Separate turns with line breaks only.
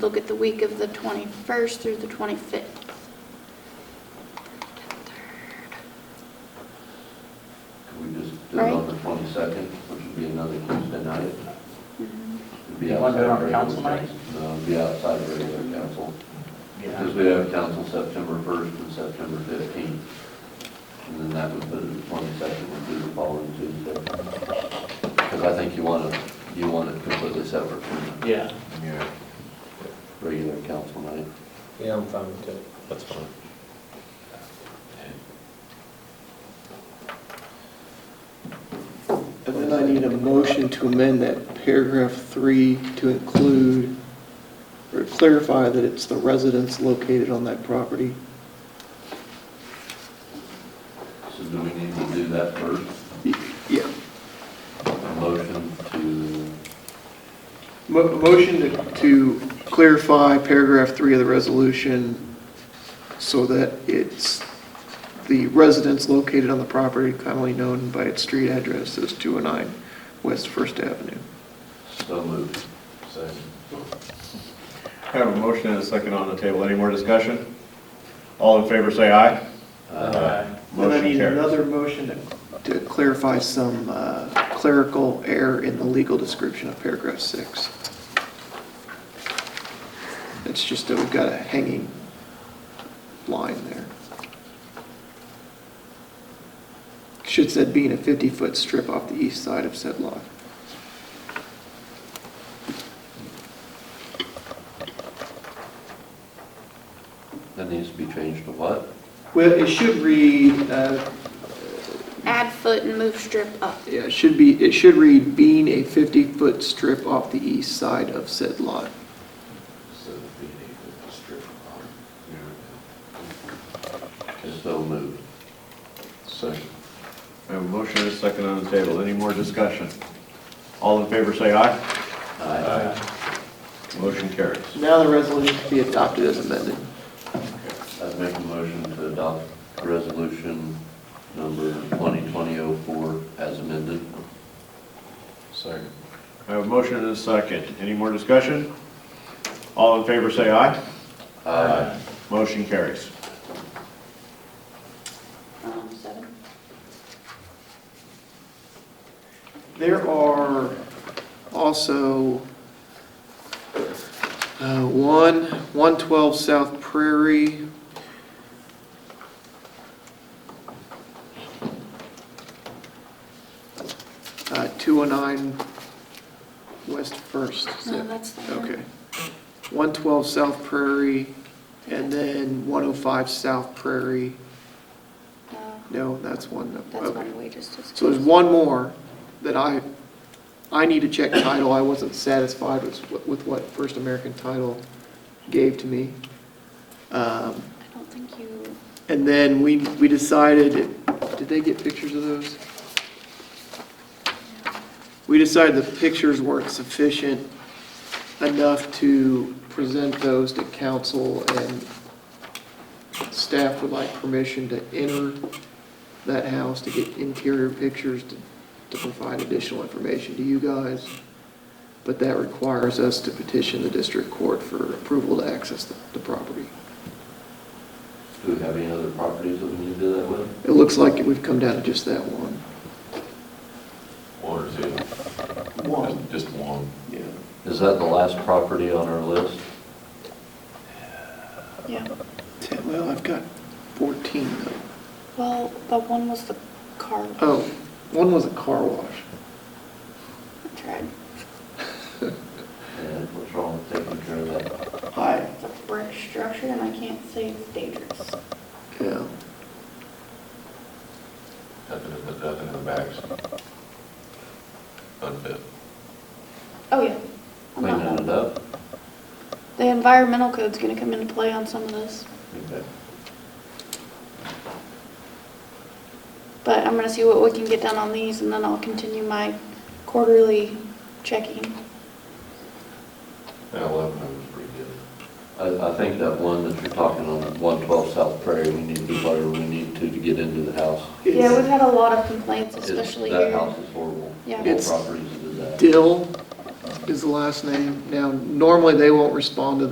Look at the week of the 21st through the 25th.
Can we just do it on the twenty-second, which would be another Tuesday night?
Mm-hmm.
It'd be
You wanna do it on
outside regular
council night?
council- No, it'd be outside regular council, because
Yeah,
we have council September first and September fifteenth. And then that would put it, the twenty-second would be the following Tuesday. Because I think you want to, you want it completely separate from
yeah.
Yeah.
regular council night.
Yeah, I'm fine with it.
That's fine.
And then I need a motion to amend that paragraph three to include, or clarify that it's the residents located on that property.
So do we need to do that first?
Y- Yeah.
A motion to,
Mo- Motion to- to clarify paragraph three of the resolution so that it's the residents located on the property commonly known by its street address as 209 West First Avenue.
so move.
Second.
I have a motion and a second on the table. Any more discussion? All in favor, say aye.
Then I
Motion
need
carries.
another motion to- to clarify some uh, clerical error in the legal description of paragraph six. It's just that we've got a hanging line there. Should said being a 50-foot strip off the east side of said lot.
That needs to be changed to what?
Well, it should read, uh,
Add foot and move strip up.
yeah, it should be, it should read being a 50-foot strip off the east side of said lot.
So it'd be an eight-foot strip of bottom.
So moved.
Second.
I have a motion and a second on the table. Any more discussion? All in favor, say aye.
Aye.
Motion carries.
Now the resolution can be adopted as amended.
I'd make a motion to adopt resolution number 2020-04 as amended.
Second.
I have a motion and a second. Any more discussion? All in favor, say aye.
Aye.
Motion carries.
Um, seven.
There are also uh, one, 112 South Prairie. uh, 209 West First. is
No,
it?
that's the one.
Okay. 112 South Prairie, and then 105 South Prairie.
No,
No, that's one. no,
Uh, that's
okay.
one we just discussed.
So there's one more that I, I need to check title, I wasn't satisfied with, with what First American Title gave to me. Um,
I don't think you,
And then we, we decided, did they get pictures of those? We decided the pictures weren't sufficient enough to present those to council, and staff would like permission to enter that house to get interior pictures to, to provide additional information to you guys. But that requires us to petition the district court for approval to access the, the property.
Do we have any other properties that we need to do that with?
It looks like we've come down to just that one.
One or two? Just- Just one.
Yeah.
Is that the last property on our list?
yeah.
Ten- Well, I've got 14 though.
Well, but one was the car.
Oh, one was a car wash.
I tried.
And what's wrong with taking care of that?
I,
It's a brick structure and I can't say it's dangerous.
yeah.
Nothing in the, nothing in the backs. Unfit.
Oh, yeah. I'm not
Cleaning it
done.
up?
The environmental code's gonna come into play on some of this,
Okay.
but I'm gonna see what we can get done on these and then I'll continue my quarterly checking.
That eleven was pretty good.
I, I think that one that you're talking on, 112 South Prairie, we need to do whatever we need to to get into the house.
Yeah, we've had a lot of complaints,
It's-
especially
That
here.
house is horrible.
Yeah.
The
It's-
Whole property's a disaster.
Dill is the last name. Now, normally they won't respond to the